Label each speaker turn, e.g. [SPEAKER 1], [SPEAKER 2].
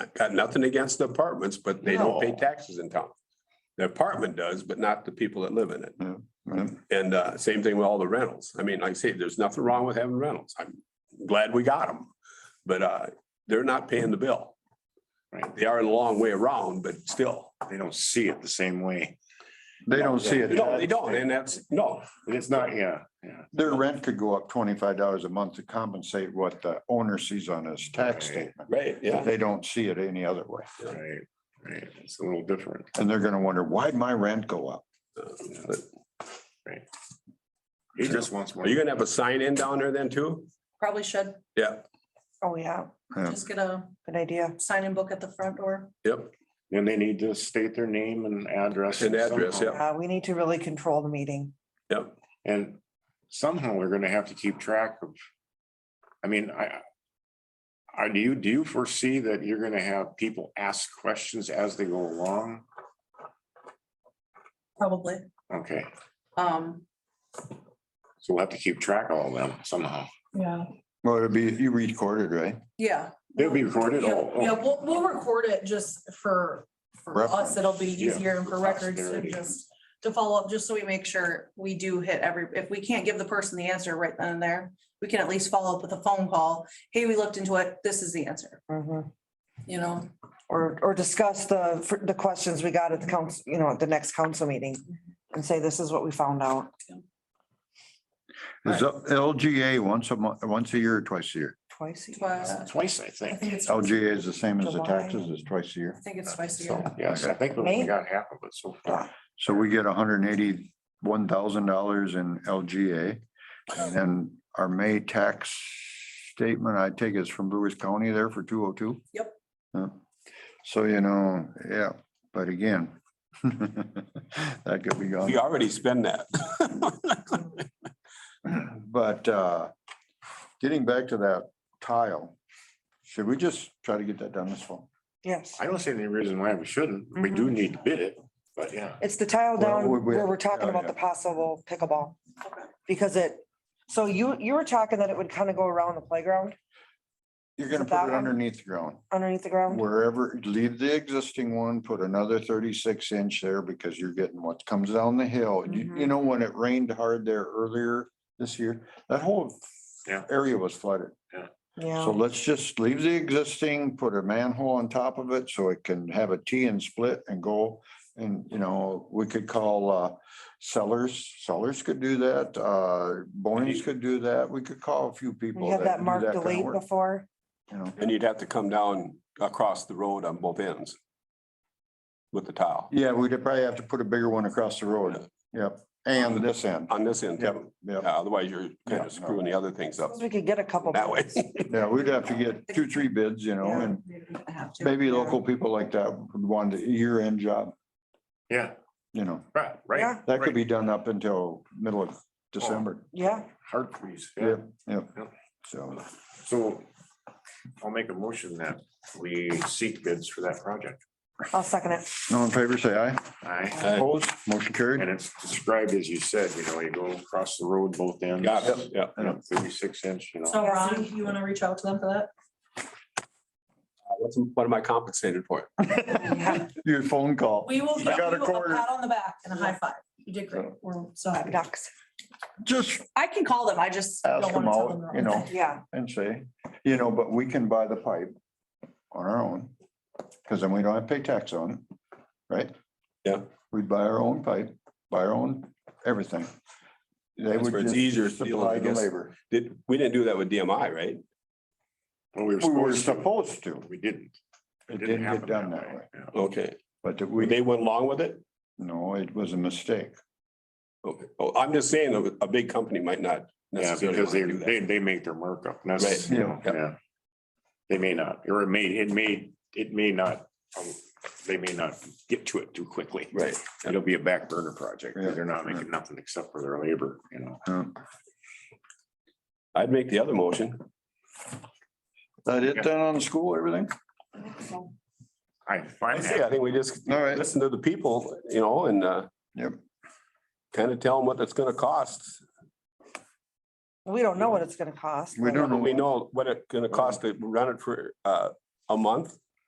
[SPEAKER 1] I've got nothing against the apartments, but they don't pay
[SPEAKER 2] No.
[SPEAKER 1] taxes in town. The apartment does, but not the people that live in it.
[SPEAKER 2] Right.
[SPEAKER 1] And uh, same thing with all the rentals. I mean, like I say, there's nothing wrong with having rentals. I'm glad we got them. But uh, they're not paying the bill.
[SPEAKER 3] Right.
[SPEAKER 1] They are a long way around, but still,
[SPEAKER 3] They don't see it the same way.
[SPEAKER 2] They don't see it.
[SPEAKER 1] no, they don't. And that's, no,
[SPEAKER 3] And It's not, yeah, yeah.
[SPEAKER 2] Their rent could go up twenty-five dollars a month to compensate what the owner sees on his tax
[SPEAKER 3] Right.
[SPEAKER 2] statement.
[SPEAKER 1] right,
[SPEAKER 2] But
[SPEAKER 1] yeah.
[SPEAKER 2] They don't see it any other way.
[SPEAKER 3] Right, right. It's a little different.
[SPEAKER 2] And they're gonna wonder, why'd my rent go up?
[SPEAKER 1] But
[SPEAKER 3] He just wants more.
[SPEAKER 1] Are you gonna have a sign in down there then too?
[SPEAKER 4] Probably should.
[SPEAKER 1] Yeah,
[SPEAKER 5] Oh, yeah,
[SPEAKER 2] Yeah.
[SPEAKER 4] Just get a
[SPEAKER 5] good idea.
[SPEAKER 4] sign in book at the front door.
[SPEAKER 1] yep.
[SPEAKER 3] And they need to state their name and address.
[SPEAKER 1] And address,
[SPEAKER 3] somehow.
[SPEAKER 1] yeah.
[SPEAKER 5] Uh, we need to really control the meeting.
[SPEAKER 1] Yep,
[SPEAKER 3] And somehow we're gonna have to keep track of. I mean, I. I do you, do you foresee that you're gonna have people ask questions as they go along?
[SPEAKER 4] Probably.
[SPEAKER 3] Okay,
[SPEAKER 4] Um,
[SPEAKER 3] so we'll have to keep track of all them somehow.
[SPEAKER 4] yeah.
[SPEAKER 2] Well, it'd be, you recorded, right?
[SPEAKER 4] Yeah.
[SPEAKER 3] They'll be recorded oh,
[SPEAKER 4] Yeah,
[SPEAKER 3] all.
[SPEAKER 4] Yeah, we'll, we'll record it just for, for us.
[SPEAKER 2] Reference,
[SPEAKER 4] It'll be
[SPEAKER 3] yeah,
[SPEAKER 4] easier and for
[SPEAKER 3] for
[SPEAKER 4] records to
[SPEAKER 3] posterity.
[SPEAKER 4] just to follow up, just so we make sure we do hit every, if we can't give the person the answer right then and there, we can at least follow up with a phone call. Hey, we looked into it. This is the answer,
[SPEAKER 5] Mhm.
[SPEAKER 4] you know?
[SPEAKER 5] Or, or discuss the, for the questions we got at the council, you know, at the next council meeting and say, this is what we found out.
[SPEAKER 2] Is LGA once a month, once a year or twice a year?
[SPEAKER 5] Twice. a year.
[SPEAKER 4] Twice.
[SPEAKER 3] Twice, I
[SPEAKER 4] I
[SPEAKER 3] think.
[SPEAKER 4] think it's, I
[SPEAKER 2] LGA is the same as the
[SPEAKER 5] July.
[SPEAKER 2] taxes, it's twice a year.
[SPEAKER 4] think it's twice a
[SPEAKER 3] So,
[SPEAKER 4] year.
[SPEAKER 3] yes, I think we only got half of it so far.
[SPEAKER 2] So we get hundred and eighty-one thousand dollars in LGA. And then our May tax statement, I take is from Lewis County there for two oh two?
[SPEAKER 4] Yep.
[SPEAKER 2] So, you know, yeah, but again, that could be gone.
[SPEAKER 1] we already spend that.
[SPEAKER 2] But uh, getting back to that tile, should we just try to get that done this fall?
[SPEAKER 5] Yes.
[SPEAKER 3] I don't see any reason why we shouldn't. We do need to bid it, but yeah.
[SPEAKER 5] It's the tile down
[SPEAKER 2] we- we-
[SPEAKER 5] where we're talking
[SPEAKER 2] yeah,
[SPEAKER 5] about
[SPEAKER 2] yeah.
[SPEAKER 5] the possible pickleball
[SPEAKER 4] Okay.
[SPEAKER 5] because it, so you, you were talking that it would kind of go around the playground
[SPEAKER 2] You're gonna
[SPEAKER 5] That
[SPEAKER 2] put
[SPEAKER 5] one?
[SPEAKER 2] it underneath the ground,
[SPEAKER 5] underneath the ground.
[SPEAKER 2] wherever, leave the existing one, put another thirty-six inch there because you're getting what comes down the hill. You,
[SPEAKER 5] Mm-hmm.
[SPEAKER 2] you know, when it rained hard there earlier this year, that whole
[SPEAKER 3] Yeah.
[SPEAKER 2] area was flooded. So
[SPEAKER 5] Yeah.
[SPEAKER 2] let's just leave the existing, put a manhole on top of it so it can have a T and split and go. And, you know, we could call uh sellers, sellers could do that, uh Bonnie's could do that. We could call a few people.
[SPEAKER 5] We had that
[SPEAKER 2] do
[SPEAKER 5] marked
[SPEAKER 2] kind of
[SPEAKER 5] delayed
[SPEAKER 2] work,
[SPEAKER 5] before.
[SPEAKER 2] You know,
[SPEAKER 1] And you'd have to come down across the road on both ends with the tile
[SPEAKER 2] yeah, we'd probably have to put a bigger one across the road. Yep, and this end.
[SPEAKER 1] on this end.
[SPEAKER 2] Yep,
[SPEAKER 1] too. Yeah,
[SPEAKER 2] yep.
[SPEAKER 1] Otherwise, you're
[SPEAKER 2] Yeah,
[SPEAKER 1] kind
[SPEAKER 2] no.
[SPEAKER 1] of screwing the other things up
[SPEAKER 5] Suppose We could get a couple.
[SPEAKER 1] that way.
[SPEAKER 2] Yeah, we'd have to get two, three bids, you know, and
[SPEAKER 4] I have to.
[SPEAKER 2] maybe
[SPEAKER 4] Yeah.
[SPEAKER 2] local people like that would want a year-end job,
[SPEAKER 3] Yeah,
[SPEAKER 2] you know.
[SPEAKER 3] right,
[SPEAKER 5] Yeah.
[SPEAKER 3] right.
[SPEAKER 2] That could
[SPEAKER 3] right.
[SPEAKER 2] be done up until middle of December.
[SPEAKER 5] Yeah.
[SPEAKER 3] Hard freeze.
[SPEAKER 2] Yep, yep.
[SPEAKER 3] Yep.
[SPEAKER 2] So
[SPEAKER 3] So I'll make a motion that we seek bids for that project.
[SPEAKER 5] I'll second it.
[SPEAKER 2] all in favor, say aye.
[SPEAKER 3] Aye.
[SPEAKER 1] Uh,
[SPEAKER 2] Opposed, motion
[SPEAKER 3] And
[SPEAKER 2] carried.
[SPEAKER 3] it's described as you said, you know, you go across the road both ends.
[SPEAKER 1] Got it, Uh, yeah.
[SPEAKER 3] you know, Thirty-six inch, you know.
[SPEAKER 4] So Ron, you want to reach out to them for that?
[SPEAKER 1] What's- What am I compensated for?
[SPEAKER 2] Your phone call.
[SPEAKER 4] We will give you
[SPEAKER 2] I got a
[SPEAKER 4] a
[SPEAKER 2] quarter.
[SPEAKER 4] pat on the back and a high five. You did great. We're so happy.
[SPEAKER 5] Ducks.
[SPEAKER 2] Just
[SPEAKER 4] I can call them. I just don't
[SPEAKER 2] ask them
[SPEAKER 4] want to tell them.
[SPEAKER 2] out,
[SPEAKER 4] the
[SPEAKER 2] you
[SPEAKER 4] wrong
[SPEAKER 2] know,
[SPEAKER 4] thing.
[SPEAKER 5] Yeah.
[SPEAKER 2] and say, you know, but we can buy the pipe on our own. Cause then we don't have to pay tax on it, right?
[SPEAKER 1] Yeah.
[SPEAKER 2] We buy our own pipe, buy our own everything. They
[SPEAKER 1] That's
[SPEAKER 2] would
[SPEAKER 1] where it's
[SPEAKER 2] just
[SPEAKER 1] easier to deal
[SPEAKER 2] supply
[SPEAKER 1] with
[SPEAKER 2] the
[SPEAKER 1] this.
[SPEAKER 2] labor.
[SPEAKER 1] Did, we didn't do that with DMI, right?
[SPEAKER 3] Well, we
[SPEAKER 2] We were
[SPEAKER 3] to,
[SPEAKER 2] supposed to.
[SPEAKER 3] but We didn't.
[SPEAKER 2] It didn't get
[SPEAKER 3] happen
[SPEAKER 2] done that way,
[SPEAKER 3] yeah.
[SPEAKER 1] Okay,
[SPEAKER 2] but that we,
[SPEAKER 1] they went along with it?
[SPEAKER 2] no, it was a mistake.
[SPEAKER 1] Okay. Oh, I'm just saying, a- a big company might not
[SPEAKER 3] Yeah,
[SPEAKER 1] necessarily
[SPEAKER 3] because
[SPEAKER 1] want
[SPEAKER 3] they,
[SPEAKER 1] to do
[SPEAKER 3] they,
[SPEAKER 1] that.
[SPEAKER 3] they make their markup. and That's,
[SPEAKER 2] Right,
[SPEAKER 3] you know,
[SPEAKER 2] yeah.
[SPEAKER 3] yeah. They may not, or it may, it may, it may not, um, they may not get to it too quickly.
[SPEAKER 1] Right.
[SPEAKER 3] It'll be a back burner project.
[SPEAKER 2] Yeah.
[SPEAKER 3] They're not making nothing except for their labor, you know.
[SPEAKER 2] Yeah.
[SPEAKER 1] I'd make the other motion.
[SPEAKER 2] That it then on the school, everything?
[SPEAKER 3] I
[SPEAKER 1] I
[SPEAKER 3] find
[SPEAKER 1] say, I
[SPEAKER 3] that,
[SPEAKER 1] think we just
[SPEAKER 2] All right.
[SPEAKER 1] listen to the people, you know, and uh,
[SPEAKER 2] Yep.
[SPEAKER 1] kind of tell them what it's gonna cost.
[SPEAKER 5] We don't know what it's gonna cost.
[SPEAKER 2] We
[SPEAKER 5] but-
[SPEAKER 2] don't know.
[SPEAKER 1] We know what it's gonna cost to run it for uh, a month